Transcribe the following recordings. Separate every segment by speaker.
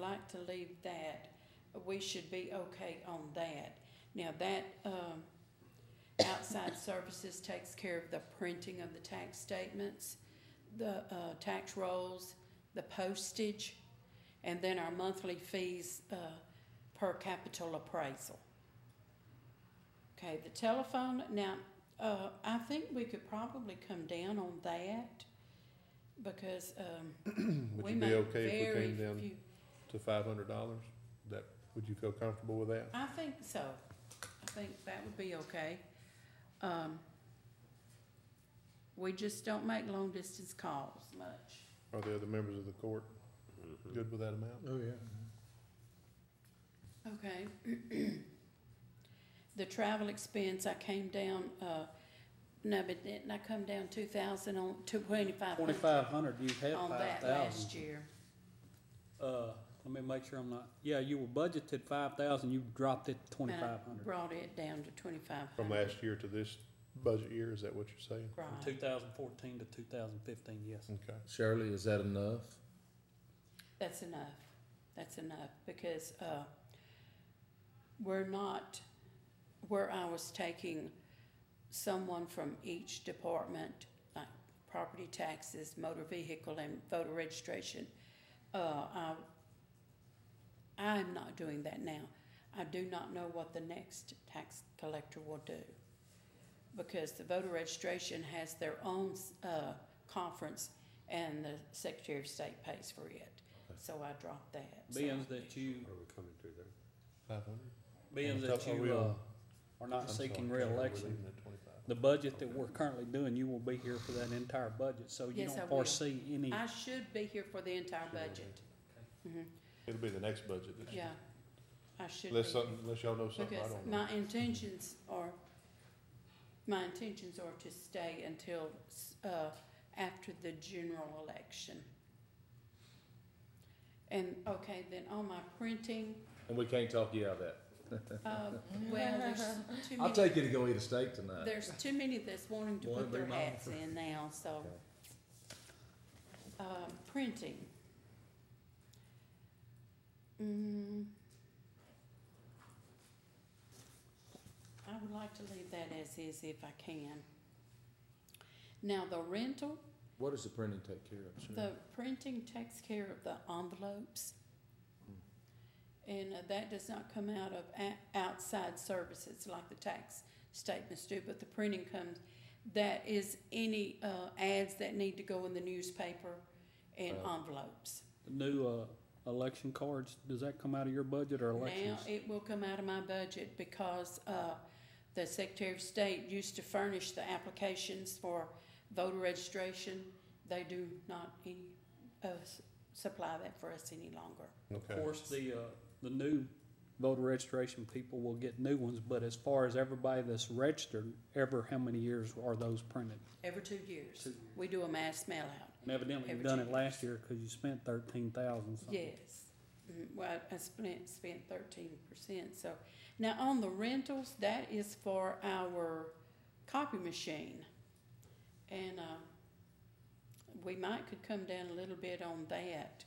Speaker 1: like to leave that, we should be okay on that. Now, that, um, outside services takes care of the printing of the tax statements, the, uh, tax rolls, the postage, and then our monthly fees, uh, per capital appraisal. Okay, the telephone, now, uh, I think we could probably come down on that because, um,
Speaker 2: Would
Speaker 1: we
Speaker 2: you be
Speaker 1: make
Speaker 2: okay if we
Speaker 1: very
Speaker 2: came down
Speaker 1: few.
Speaker 2: to five hundred dollars? That, would you feel comfortable with that?
Speaker 1: I think so. I think that would be okay. Um, we just don't make long distance calls much.
Speaker 2: Are the other members of the court good with that amount?
Speaker 3: Oh, yeah.
Speaker 1: Okay. The travel expense, I came down, uh, no, but didn't I come down two thousand on, to twenty-five hundred
Speaker 3: Twenty-five hundred, you had
Speaker 1: on
Speaker 3: five
Speaker 1: that last
Speaker 3: thousand.
Speaker 1: year?
Speaker 3: Uh, let me make sure I'm not, yeah, you were budgeted five thousand, you dropped it to
Speaker 1: And I
Speaker 3: twenty-five hundred.
Speaker 1: Brought it down to twenty-five
Speaker 2: From
Speaker 1: hundred.
Speaker 2: last year to this budget year, is that what you're saying?
Speaker 3: From
Speaker 1: Right,
Speaker 3: two thousand fourteen to two thousand fifteen, yes.
Speaker 2: Okay.
Speaker 4: Shirley, is that enough?
Speaker 1: that's enough. That's enough because, uh, we're not, where I was taking someone from each department, like property taxes, motor vehicle and voter registration, uh, I, I'm not doing that now. I do not know what the next tax collector will do. Because the voter registration has their own, uh, conference and the Secretary of State pays for it. So I dropped that. so-
Speaker 3: Being that you,
Speaker 2: Five hundred?
Speaker 3: being that you, uh, are not seeking reelection, the budget that we're currently doing, you will be here for that entire budget, so you
Speaker 1: Yes, I
Speaker 3: don't
Speaker 1: will.
Speaker 3: foresee any.
Speaker 1: I should be here for the entire budget. Mhm,
Speaker 2: It'll be the next budget this year.
Speaker 1: Yeah, I should be.
Speaker 2: Unless something, unless y'all know something I
Speaker 1: Because
Speaker 2: don't know.
Speaker 1: my intentions are, my intentions are to stay until, uh, after the general election. And, okay, then on my printing,
Speaker 4: And we can't talk you out of that.
Speaker 1: uh, well, there's too
Speaker 4: I'll
Speaker 1: many,
Speaker 4: take you to go eat a steak tonight.
Speaker 1: there's too many that's wanting to
Speaker 4: Wanna
Speaker 1: put
Speaker 4: be
Speaker 1: their
Speaker 4: mine.
Speaker 1: hats in now, so.
Speaker 4: Okay.
Speaker 1: Um, printing. Mm. I would like to leave that as is if I can. Now, the rental,
Speaker 4: What does the printing take care of, Shirley?
Speaker 1: the printing takes care of the envelopes. And uh, that does not come out of a- outside services like the tax statements do, but the printing comes, that is any, uh, ads that need to go in the newspaper and
Speaker 4: Right.
Speaker 1: envelopes.
Speaker 3: New, uh, election cards, does that come out of your budget or
Speaker 1: Now,
Speaker 3: elections?
Speaker 1: it will come out of my budget because, uh, the Secretary of State used to furnish the applications for voter registration. They do not any, uh, s- supply that for us any longer.
Speaker 3: Of
Speaker 2: Okay.
Speaker 3: course, the, uh, the new voter registration people will get new ones, but as far as everybody that's registered, ever how many years are those printed?
Speaker 1: Every two years,
Speaker 3: Two years.
Speaker 1: we do a mass mail out.
Speaker 3: And evidently you've
Speaker 1: Every
Speaker 3: done
Speaker 1: two
Speaker 3: it last year because you spent thirteen thousand something.
Speaker 1: Yes. Mm, Well, I spent, spent thirteen percent, so. Now, on the rentals, that is for our copy machine. And, uh, we might could come down a little bit on that.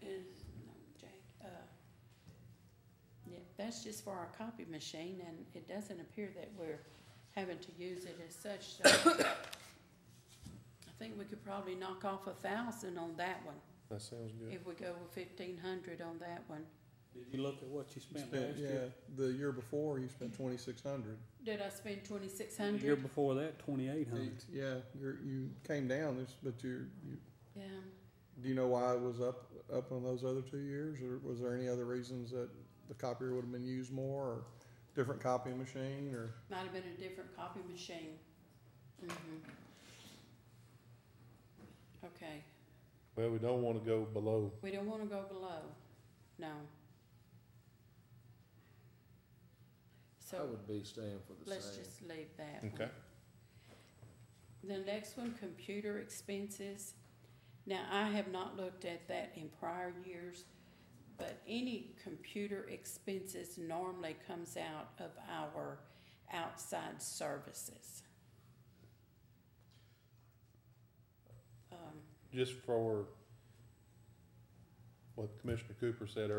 Speaker 1: Is- no, Jake, uh, Yeah, that's just for our copy machine, and it doesn't appear that we're having to use it as such, so. I think we could probably knock off a thousand on that one.
Speaker 2: That sounds good.
Speaker 1: If we go with fifteen hundred on that one,
Speaker 3: Did you look at what you spent
Speaker 5: Spent,
Speaker 3: last
Speaker 5: yeah,
Speaker 3: year?
Speaker 5: the year before, you spent twenty-six hundred.
Speaker 1: did I spend twenty-six
Speaker 3: The year
Speaker 1: hundred?
Speaker 3: before that, twenty-eight hundred.
Speaker 5: Yeah, you're, you came down this, but you, you,
Speaker 1: Yeah,
Speaker 5: do you know why it was up, up on those other two years? Or was there any other reasons that the copier would have been used more or different copying machine or?
Speaker 1: might have been a different copy machine. Mhm. Okay,
Speaker 2: Well, we don't wanna go below,
Speaker 1: we don't wanna go below, no.
Speaker 4: I
Speaker 1: So,
Speaker 4: would be staying for the
Speaker 1: let's
Speaker 4: same.
Speaker 1: just leave that one.
Speaker 2: okay?
Speaker 1: The next one, computer expenses. Now, I have not looked at that in prior years, but any computer expenses normally comes out of our outside services. Um, Um,
Speaker 2: Just for what Commissioner Cooper said earlier.